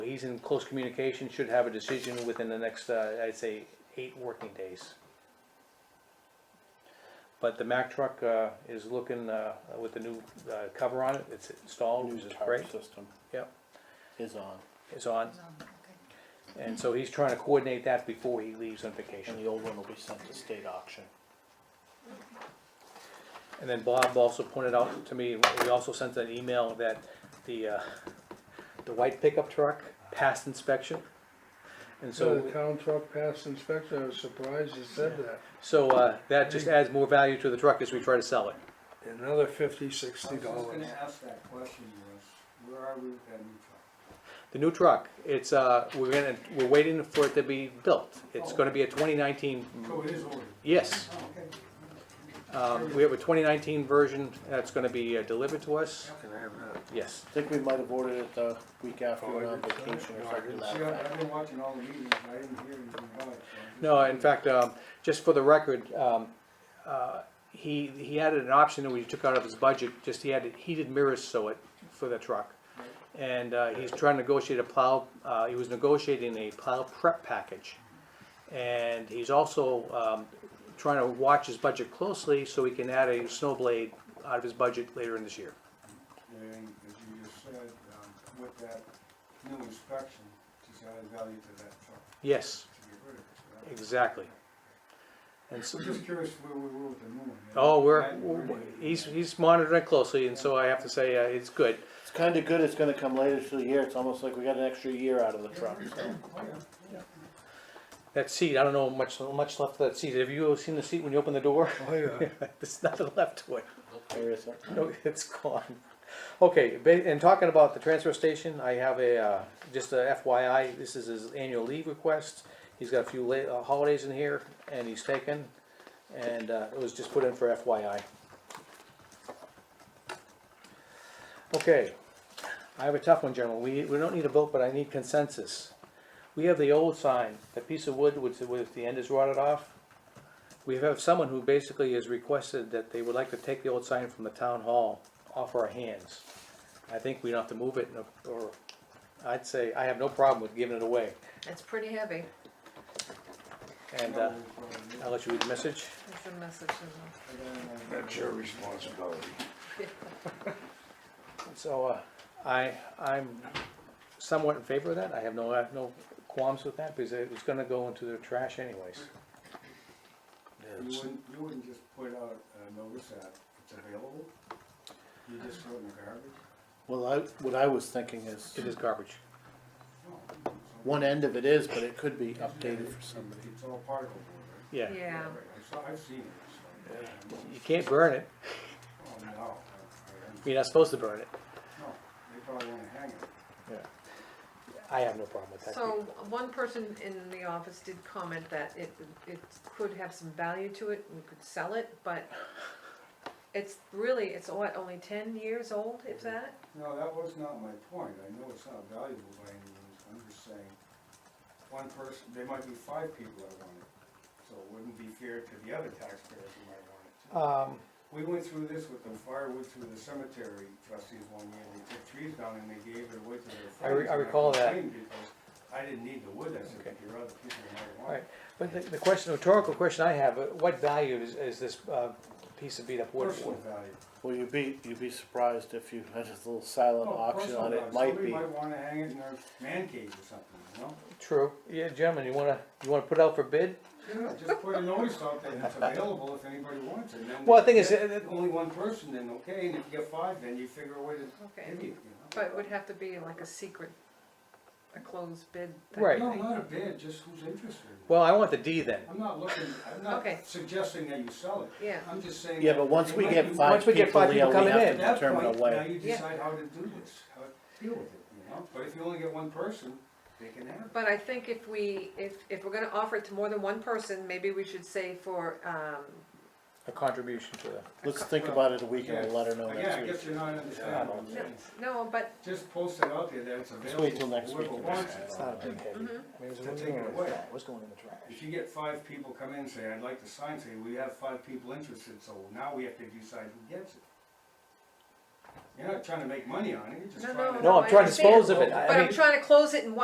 he's in close communication, should have a decision within the next, uh, I'd say, eight working days. But the Mack truck, uh, is looking, uh, with the new, uh, cover on it, it's installed, which News is is hard great, system yep, is on, it's on. And so he's trying to coordinate that before he leaves on vacation. and the old one will be sent to state auction. And then Bob also pointed out to me, we also sent an email that the, uh, the white pickup truck passed inspection. And So so, the town truck passed inspection, I was surprised you said that. so, uh, that just adds more value to the truck as we try to sell it. Another fifty, I sixty was just dollars. gonna ask that question was, where are we with that new truck? The new truck, it's, uh, we're gonna, we're waiting for it to be built. It's gonna be a twenty nineteen, So Oh, it is ordered. yes. Oh, okay. Um, we have a twenty nineteen version that's gonna be uh, delivered to us, Can I have that? yes. I think we might have ordered it the week after Oh, I we went on didn't see vacation it. No, or I something didn't like See, I- that. I've been watching all the meetings, I didn't hear anything about it. so I'm just- No, in fact, um, just for the record, um, uh, he, he added an option that we took out of his budget, just he added heated mirrors so it, for the truck. And uh, he's trying to negotiate a plow, uh, he was negotiating a plow prep package. And he's also um, trying to watch his budget closely so he can add a snow blade out of his budget later in this year. And as you just said, um, with that new inspection, just added value to that truck Yes, to get rid of it. right? exactly. And so, I'm just curious where we were with the new one. you know? oh, we're, I- we're- he's, he's monitoring it closely and so I have to say, uh, it's good. It's kinda good, it's gonna come later through the year, it's almost like we got an extra year out of the truck, so. Oh, yeah. That seat, I don't know much, much left of that seat. Have you seen the seat when you open the door? Oh, yeah. There's nothing left to it. There is a- No, it's gone. Okay, ba- and talking about the transfer station, I have a, uh, just a FYI, this is his annual leave request. He's got a few la- uh, holidays in here and he's taken, and, uh, it was just put in for FYI. Okay, I have a tough one, gentlemen. We, we don't need a vote, but I need consensus. We have the old sign, the piece of wood with, with the end is rotted off. We have someone who basically has requested that they would like to take the old sign from the town hall off our hands. I think we don't have to move it, no- or, I'd say, I have no problem with giving it away. It's pretty heavy, And, No, uh, we probably- I'll let you read the message. it's a message, isn't I don't know. That's your responsibility. So, uh, I, I'm somewhat in favor of that, I have no, I have no qualms with that, because it was gonna go into the trash anyways. You wouldn't, you wouldn't just put out a notice that it's available? You just throw it in the garbage? Well, I, what I was thinking is, It is garbage. No. it's all- one end of it is, but it could be updated for It's- somebody. It's all particle board, Yeah, it? Yeah, right? I saw, I've seen it, so. you can't burn it, Oh, no, I- you're not supposed to burn it. I- no, they probably wanna hang it. I have no problem with that. so one person in the office did comment that it, it could have some value to it, we could sell it, but it's really, it's what, only ten years old, Mm-hmm. if that? No, that was not my point. I know it's not valuable by any means. I'm just saying, one person, there might be five people that want it. So it wouldn't be fair to the other taxpayers who might want it too. Um, We went through this with the firewood through the cemetery trustees one year, they took trees down and they gave it away to their friends. I re- I and recall that. complained Because I didn't need the wood, I said, but your other people might want Right, it. but the, the question, rhetorical question I have, uh, what value is, is this, uh, piece of beat up wood Personal for? value. Well, you'd be, you'd be surprised if you had a little silent Oh, auction personal on value. it, might Somebody be. might wanna hang it in their man cave or something, you know? True, yeah, gentlemen, you wanna, you wanna put it out for bid? Yeah, just put a notice out that it's available if anybody wants it, and then. Well, I think it's- if it's Only one person, then okay, and if you get five, then you figure a way to Okay, give it, you know? but it would have to be like a secret, a closed bid. type Right. No, thing. not a bid, just who's interested. Well, I want the D then. I'm not looking, I'm not Okay. suggesting that you sell it. Yeah. I'm just saying. Yeah, that but once it we might get be- five Once we get people, five Leo, people we coming have in. At to that determine a point, now way. you Yeah. decide how to do this, how to deal with it, you know? But if you only get one person, they can have it. But I think if we, if, if we're gonna offer it to more than one person, maybe we should say for, um, A contribution to the. Let's think about it a week and Again- we'll let her know Again, I next guess week. you're not understanding what I'm no, saying. no, but, Just post it out there that it's available. till for next week whoever and wants decide. it. It's not a big heavy. To take it away. What's going in the trash? If you get five people come in and say, I'd like to sign, say, we have five people interested, so now we have to decide who gets it. You're not trying to make money on it, you're just no, trying no. to. No, I'm I trying to understand, dispose of it. I- I But I'm mean- trying to close it in one